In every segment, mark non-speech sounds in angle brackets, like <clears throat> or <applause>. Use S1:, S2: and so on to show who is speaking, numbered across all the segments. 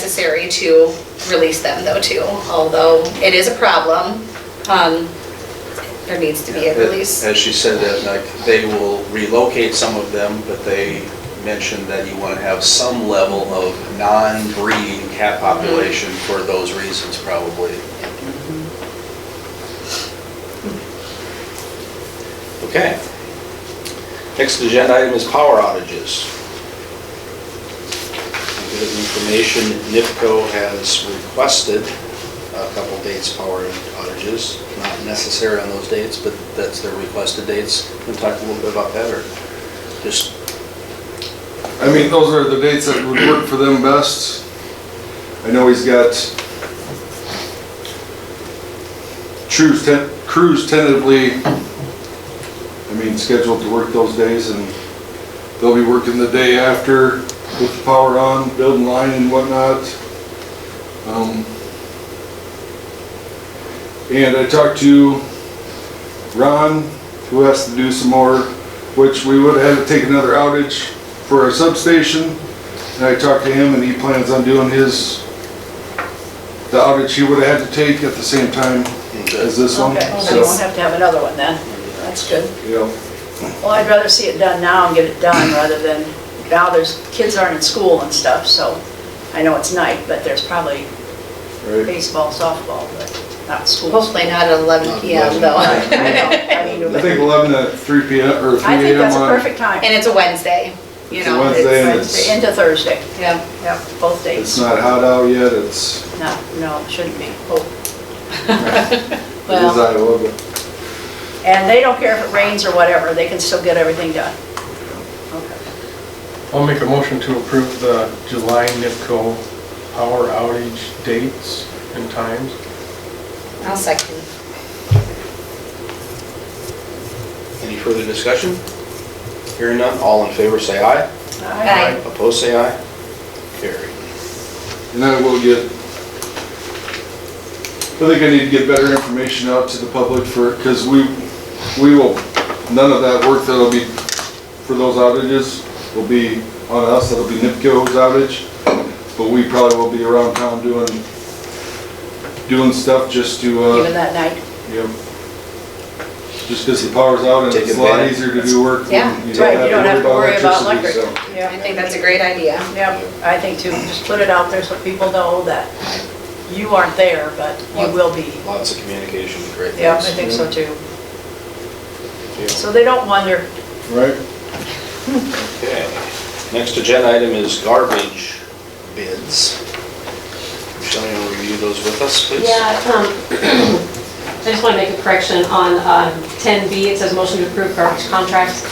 S1: necessary to release them though too, although it is a problem. um, There needs to be a release.
S2: As she said, that like, they will relocate some of them, but they mentioned that you want to have some level of non-breeding
S1: Mm-hmm.
S2: cat population for those reasons probably. Okay. Next agenda item is power outages. A bit of information, NIPCO has requested a couple dates power outages, not necessary on those dates, but that's their requested dates. Can we talk a little bit about that, or just,
S3: I mean, those are the dates that would work for them best. I know he's got Cruz ten, Cruz tentatively, I mean, scheduled to work those days and they'll be working the day after with the power on, building line and whatnot. Um, And I talked to Ron, who has to do some more, which we would have had to take another outage for our substation. And I talked to him and he plans on doing his, the outage he would have had to take at the same time as this one.
S4: Okay, so you won't
S3: So,
S4: have to have another one then. That's good.
S3: yeah.
S4: Well, I'd rather see it done now and get it done rather than, now there's, kids aren't in school and stuff, so I know it's night, but there's probably
S3: Right.
S4: baseball, softball, but not school.
S1: Hopefully not at 11 PM though.
S4: I know,
S1: And <laughs>
S4: I
S3: <laughs>
S4: mean,
S3: I think 11 to 3 p.m. or 3
S4: I think
S3: a.m.
S4: that's a
S3: on
S4: perfect time.
S1: it's a Wednesday, you
S3: It's a
S1: know.
S3: Wednesday and
S4: Wednesday into Thursday,
S1: Yeah.
S4: yeah, both
S3: It's
S4: days.
S3: not hot out yet, it's, it
S4: No, no, it shouldn't be.
S3: is
S4: Well-
S3: Iowa, but
S4: And they don't care if it rains or whatever, they can still get everything done. Okay.
S5: I'll make a motion to approve the July NIPCO power outage dates and times.
S1: <laughs> I'll second.
S2: any further discussion? Hearing none, all in favor say aye.
S1: Aye.
S2: Opposed say aye. Carried.
S3: and I will get, I think I need to get better information out to the public for, because we, we will, none of that work that'll be, for those outages, will be on us, that'll be NIPCO's outage, but we probably will be around town doing, doing stuff just to, uh.
S4: Even that night.
S3: Yep. Just because the power's out and
S2: Take
S3: it's a lot
S2: advantage.
S3: easier to do work.
S1: Yeah,
S3: when
S4: That's right, you don't have to worry about electric.
S3: electricity,
S4: Yeah.
S1: I think that's a great idea.
S4: Yeah, I think too, just put it out there so people know that you aren't there, but you will be.
S2: Lots of communication, great things.
S4: Yeah, I think so too.
S2: Yeah.
S4: So they don't wonder,
S3: so, Right?
S2: Okay, next agenda item is garbage bids. Michelle, you want to review those with us, please?
S6: Yeah, um, <clears throat> I just want to make a correction on um, 10B, it says motion to approve garbage contracts.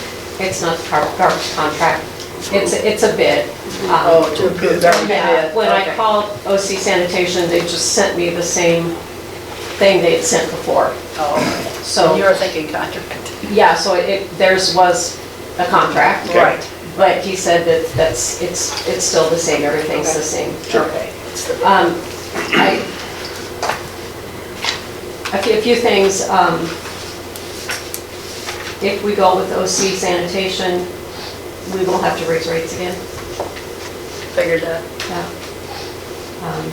S6: It's not gar- garbage contract, it's, it's a bid. Um,
S4: oh, to approve their
S6: Yeah,
S4: bid.
S6: when I
S4: Okay.
S6: called OC sanitation, they just sent me the same thing they had sent before.
S4: Oh, So
S6: So,
S4: you're thinking contract.
S6: yeah, so it, theirs was a contract.
S2: Okay.
S4: Right,
S6: But he said that that's, it's, it's still the same, everything's the same.
S4: okay. It's the-
S6: Um, I, a few, a few things, um, if we go with OC sanitation, we will have to raise rates again.
S4: Figured that.
S6: Yeah. Um,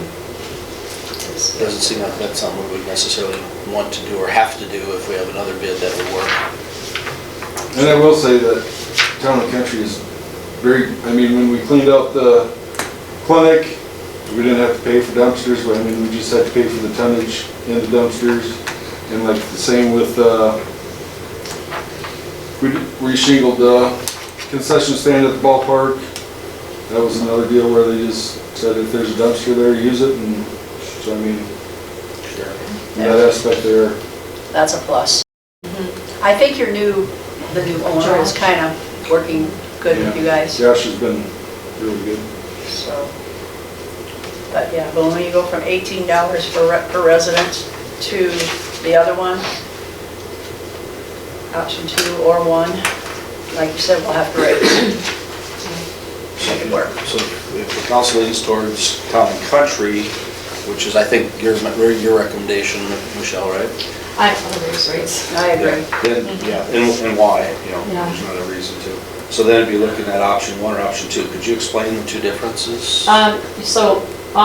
S4: It's-
S2: Doesn't seem like that's something we would necessarily want to do or have to do if we have another bid that would work.
S3: And I will say that town and country is very, I mean, when we cleaned out the clinic, we didn't have to pay for dumpsters, but I mean, we just had to pay for the tonnage in the dumpsters. And like the same with, uh, we reshingled the concession stand at the ballpark. That was another deal where they just said if there's a dumpster there, use it, and so I mean, in that aspect there.
S4: That's a plus.
S6: Mm-hmm.
S4: I think your new, the new owner is kind of working good with you guys.
S3: Josh has been really good.
S4: So, but yeah, but when you go from eighteen dollars for re- per resident to the other one, option two or one, like you said, we'll have to raise. Make it work.
S2: So if the council leans towards town and country, which is, I think, your, your recommendation, Michelle, right?
S6: I will raise rates.
S4: I agree. Mhm.
S2: Then, yeah, and and why, you know,
S6: Yeah.
S2: there's not a reason to. So then it'd be looking at option one or option two. Could you explain the two differences?
S6: Um, so